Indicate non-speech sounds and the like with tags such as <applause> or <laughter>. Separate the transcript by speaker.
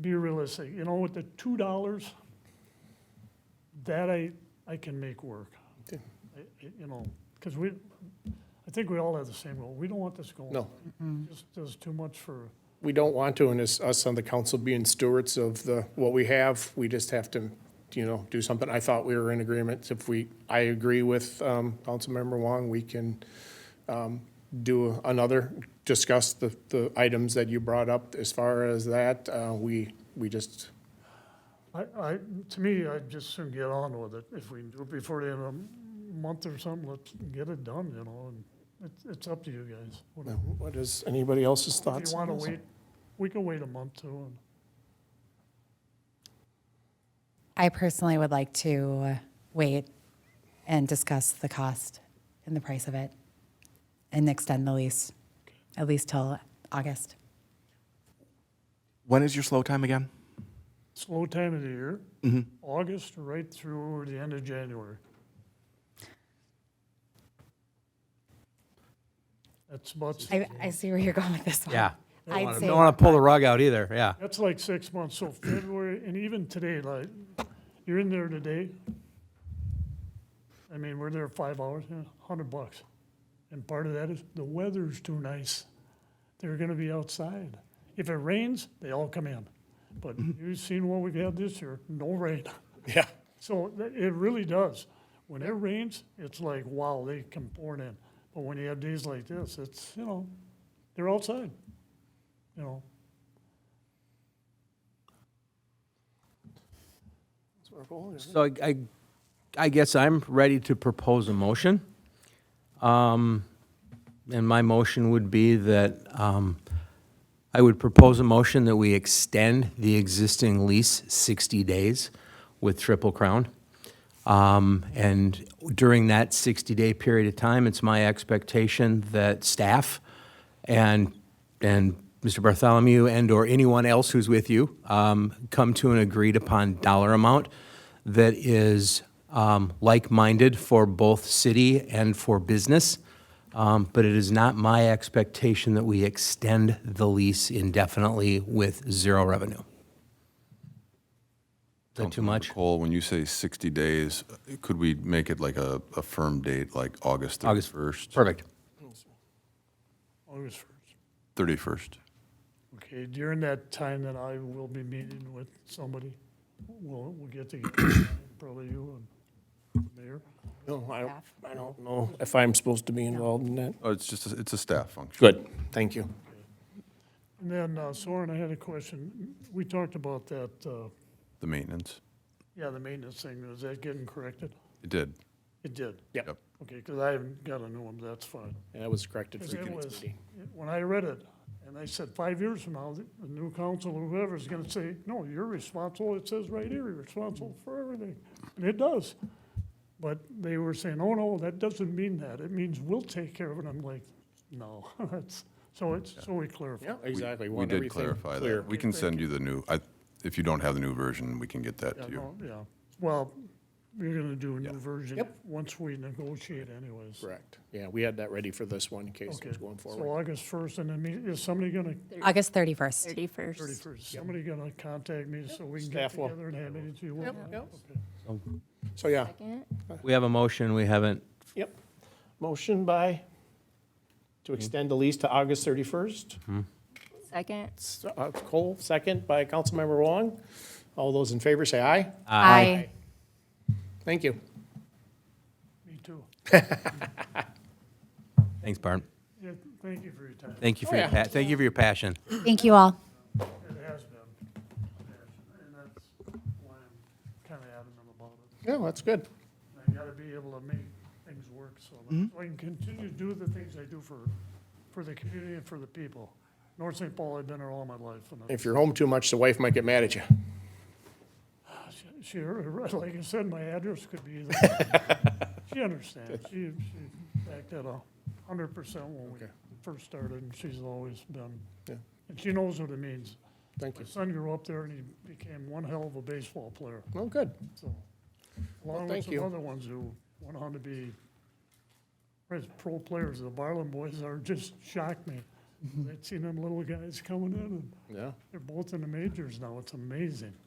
Speaker 1: be realistic, you know, with the two dollars, that I, I can make work.
Speaker 2: Okay.
Speaker 1: I- I- You know, because we, I think we all have the same goal, we don't want this going.
Speaker 2: No.
Speaker 1: Just does too much for,
Speaker 2: We don't want to, and it's us on the council being stewards of the, what we have, we just have to, you know, do something. I thought we were in agreement. If we, I agree with um, Councilmember Wong, we can um, do another, discuss the, the items that you brought up as far as that. Uh, We, we just,
Speaker 1: I, I, to me, I'd just soon get on with it, if we can do it before the end of the month or something, let's get it done, you know, and it's, it's up to you guys. whatever.
Speaker 2: what is anybody else's
Speaker 1: If
Speaker 2: thoughts?
Speaker 1: you want to wait, we can wait a month too, and
Speaker 3: I personally would like to uh, wait and discuss the cost and the price of it and extend the lease, at least till August.
Speaker 4: When is your slow time again?
Speaker 1: slow time of the year, August right through the end of January. That's about,
Speaker 3: I, I see where you're going with this one.
Speaker 5: Yeah.
Speaker 3: I'd say,
Speaker 5: Don't want to pull the rug out either, yeah.
Speaker 1: that's like six months, so February, and even today, like, you're in there today. I mean, we're there five hours, yeah, hundred bucks. And part of that is the weather's too nice. They're gonna be outside. If it rains, they all come in. But you've seen what we've had this year, no rain.
Speaker 2: Yeah,
Speaker 1: So th- it really does. When it rains, it's like, wow, they come pouring in. But when you have days like this, it's, you know, they're outside, you know.
Speaker 5: So I, I, I guess I'm ready to propose a motion. Um, and my motion would be that, um, I would propose a motion that we extend the existing lease sixty days with Triple Crown. Um, and during that sixty-day period of time, it's my expectation that staff and, and Mr. Bartholomew and/or anyone else who's with you, um, come to an agreed-upon dollar amount that is um, like-minded for both city and for business. Um, But it is not my expectation that we extend the lease indefinitely with zero revenue. Is that too
Speaker 6: Councilmember
Speaker 5: much?
Speaker 6: Cole, when you say 60 days, could we make it like a, a firm date, like August
Speaker 5: August.
Speaker 6: 31st?
Speaker 5: Perfect.
Speaker 1: August first.
Speaker 6: 31st.
Speaker 1: Okay, during that time that I will be meeting with somebody, we'll, we'll get together, probably you and the mayor.
Speaker 2: no, I don't, I don't know if I'm supposed to be involved in that.
Speaker 6: Oh, it's just, a- it's a staff function.
Speaker 2: Good, thank you.
Speaker 1: And then, uh, Soren, I had a question. We talked about that, uh,
Speaker 6: The maintenance.
Speaker 1: yeah, the maintenance thing, is that getting corrected?
Speaker 6: It did.
Speaker 1: It did?
Speaker 2: Yep.
Speaker 6: Yep.
Speaker 1: Okay, because I haven't got a new one, that's fine.
Speaker 2: That was corrected for
Speaker 1: Because it
Speaker 2: tonight's
Speaker 1: was,
Speaker 2: meeting.
Speaker 1: it- when I read it, and I said, five years from now, the the new council, or whoever's gonna say, no, you're responsible, it says right here, you're responsible for everything, and it does. But they were saying, oh, no, that doesn't mean that, it means we'll take care of it, I'm like, no, <laughs> that's, so it's, so we clarify.
Speaker 2: Yeah, exactly.
Speaker 6: We
Speaker 2: want
Speaker 6: did
Speaker 2: everything
Speaker 6: clarify
Speaker 2: clear.
Speaker 6: that. We can send you the new, I, if you don't have the new version, we can get that
Speaker 1: Yeah,
Speaker 6: to you.
Speaker 1: no, yeah, well, we're gonna do a new
Speaker 6: Yeah.
Speaker 1: version,
Speaker 2: Yep.
Speaker 1: once we negotiate anyways.
Speaker 2: Correct. Yeah, we had that ready for this one in case it
Speaker 1: Okay,
Speaker 2: was going
Speaker 1: so
Speaker 2: forward.
Speaker 1: August first, and then, me- is somebody gonna
Speaker 3: August 31st.
Speaker 7: 31st.
Speaker 1: Thirty-first, somebody gonna contact me so we can get
Speaker 2: Staff will.
Speaker 1: together and hand it to you?
Speaker 2: Yep, yep. So, yeah,
Speaker 5: We have a motion, we haven't,
Speaker 2: yep. Motion by, to extend the lease to August 31st.
Speaker 7: Second.
Speaker 2: S- uh, Cole, second by Councilmember Wong. All those in favor say aye.
Speaker 3: Aye.
Speaker 2: Thank you.
Speaker 1: Me too.
Speaker 5: thanks, Barb.
Speaker 1: Yeah, thank you for your time.
Speaker 5: Thank you for your,
Speaker 2: yeah.
Speaker 5: pa- thank you for your passion.
Speaker 3: Thank you all.
Speaker 1: It has been. And that's why I'm kind of adamant about it.
Speaker 2: Yeah, that's good.
Speaker 1: I got to be able to make things work so that
Speaker 2: Mm-hmm.
Speaker 1: so I can continue to do the things I do for, for the community and for the people. North St. Paul, I've been here all my life. and I-
Speaker 2: If you're home too much, the wife might get mad at you.
Speaker 1: she- She, like I said, my address could be either.
Speaker 2: <laughs>
Speaker 1: She understands. She, she backed that a hundred percent when we
Speaker 2: Okay.
Speaker 1: first started and she's always been.
Speaker 2: Yeah.
Speaker 1: And she knows what it means.
Speaker 2: Thank
Speaker 1: My
Speaker 2: you.
Speaker 1: son grew up there and he became one hell of a baseball player.
Speaker 2: Well, good.
Speaker 1: So, along with
Speaker 2: thank
Speaker 1: some
Speaker 2: you.
Speaker 1: other ones who went on to be pres- pro players, the Barlin boys are, just shocked me. I've seen them little guys coming in, and
Speaker 2: Yeah.
Speaker 1: they're both in the majors now, it's amazing.